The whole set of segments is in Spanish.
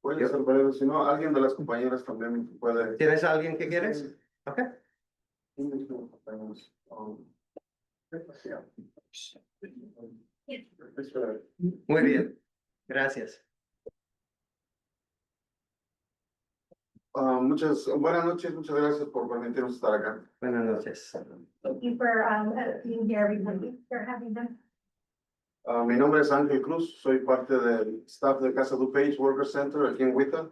Voy a ser breve, si no, alguien de las compañeras también puede. ¿Tienes a alguien que quieres? Ok. Muy bien, gracias. Ah, muchas, buenas noches, muchas gracias por permitirnos estar acá. Buenas noches. Thank you for um uh, being here, everybody, for having them. Ah, mi nombre es Ángel Cruz, soy parte del staff de Casa DuPage Worker Center aquí en Huita.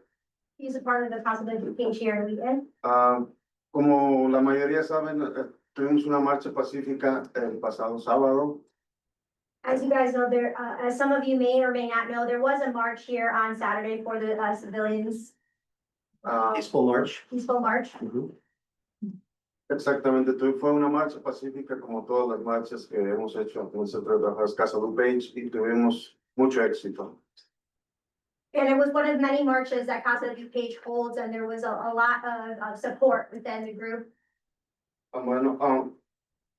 He's a part of the Council of Education here in Wheaton. Ah, como la mayoría saben, eh, tuvimos una marcha pacífica el pasado sábado. As you guys know, there, uh, as some of you may or may not know, there was a march here on Saturday for the uh, civilians Ah, Peaceful March. peaceful march. Ujú. Exactamente, tu- fue una marcha pacífica como todas las marchas que hemos hecho en el Centro de Trabajadores Casa DuPage y tuvimos mucho éxito. And it was one of many marches that Casa de Page holds, and there was a, a lot of, of support within the group. Ah, Bueno, ah,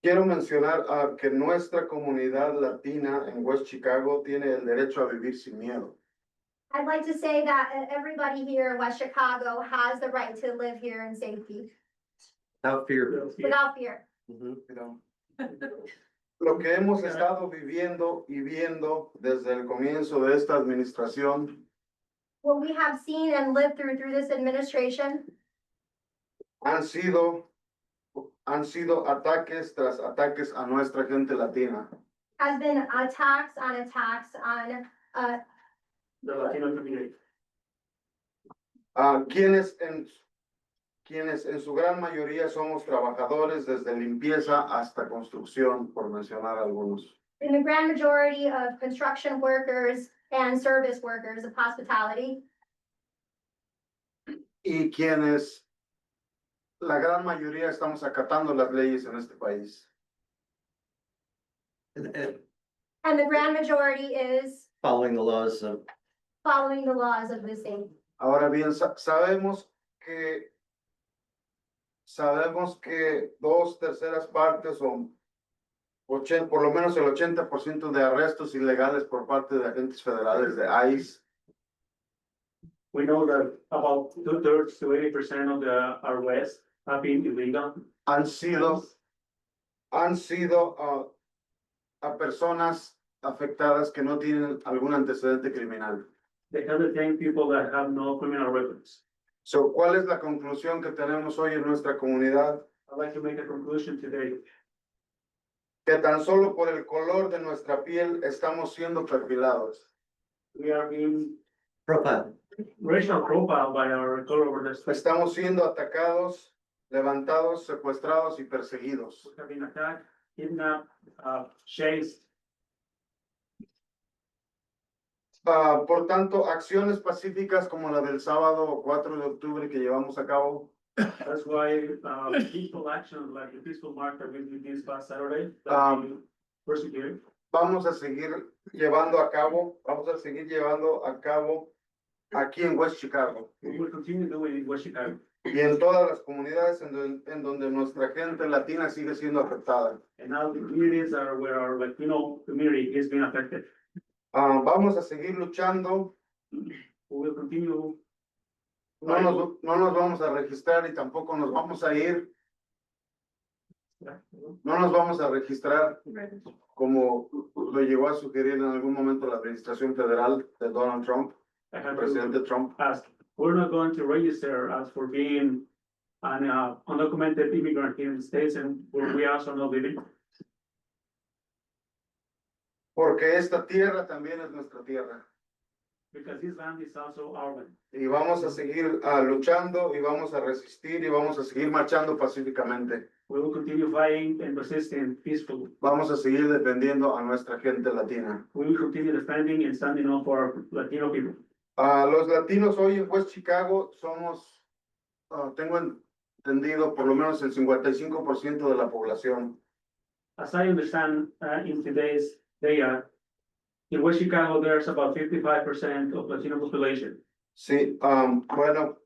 quiero mencionar ah, que nuestra comunidad latina en West Chicago tiene el derecho a vivir sin miedo. I'd like to say that uh, everybody here in West Chicago has the right to live here in safety, Without fear. eh, without fear. Ujú. Mira, Lo que hemos estado viviendo y viendo desde el comienzo de esta administración What we have seen and lived through, through this administration, han sido, han sido ataques tras ataques a nuestra gente latina. has been attacks on attacks on, uh, a quienes Ah, en, quienes en su gran mayoría somos trabajadores desde limpieza hasta construcción, por mencionar algunos. in the grand majority of construction workers and service workers of hospitality. Y quienes, la gran mayoría estamos acatando las leyes en este país. Eh, And the grand majority is Following the laws of, following the laws of the state. Ahora bien, sa- sabemos que sabemos que dos terceras partes son por lo menos el 80% de arrestos ilegales por parte de agentes federales de ICE We know that about two thirds to eighty percent of the arrests have been illegal. han sido han sido ah, a personas afectadas que no tienen algún antecedente criminal. They can detain people that have no criminal records. So, ¿cuál es la conclusión que tenemos hoy en nuestra comunidad? I'd like to make a conclusion today. Que tan solo por el color de nuestra piel estamos siendo perfilados. We are being profile, racial profiled by our color of our skin. Estamos siendo atacados, levantados, secuestrados y perseguidos. We have been attacked, kidnapped, uh, chased. Ah, por tanto, acciones pacíficas como la del sábado 4 de octubre que llevamos a cabo That's why, uh, peaceful action, like the peaceful march that we did this past Saturday, that we Um, persecuted. vamos a seguir llevando a cabo, vamos a seguir llevando a cabo aquí en West Chicago We will continue doing it in Washington y en todas las comunidades en don- en donde nuestra gente latina sigue siendo afectada. and now the communities are where our Latino community is being affected. Ah, vamos a seguir luchando, We will continue no nos, no nos vamos a registrar y tampoco nos vamos a ir, no nos vamos a registrar como lo llegó a sugerir en algún momento la administración federal de Donald Trump, I el have to presidente Trump. ask, we're not going to register us for being an uh, undocumented immigrant here in the States and where we also not living, Porque esta tierra también es nuestra tierra. because this land is also our land. Y vamos a seguir ah, luchando y vamos a resistir y vamos a seguir marchando pacíficamente. We will continue fighting and persisting peacefully. Vamos a seguir defendiendo a nuestra gente latina. We will continue defending and standing up for our Latino people. A los latinos hoy en West Chicago somos, ah, tengo entendido, por lo menos el 55% de la población. As I understand, uh, in today's data, in West Chicago, there's about fifty-five percent of Latino population. Sí, am, bueno,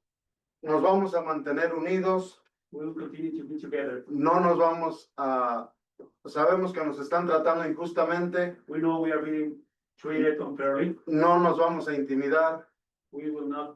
nos vamos a mantener unidos, We will continue to be together. no nos vamos a, sabemos que nos están tratando injustamente, We know we are being treated unfairly. no nos vamos a intimidar, We will not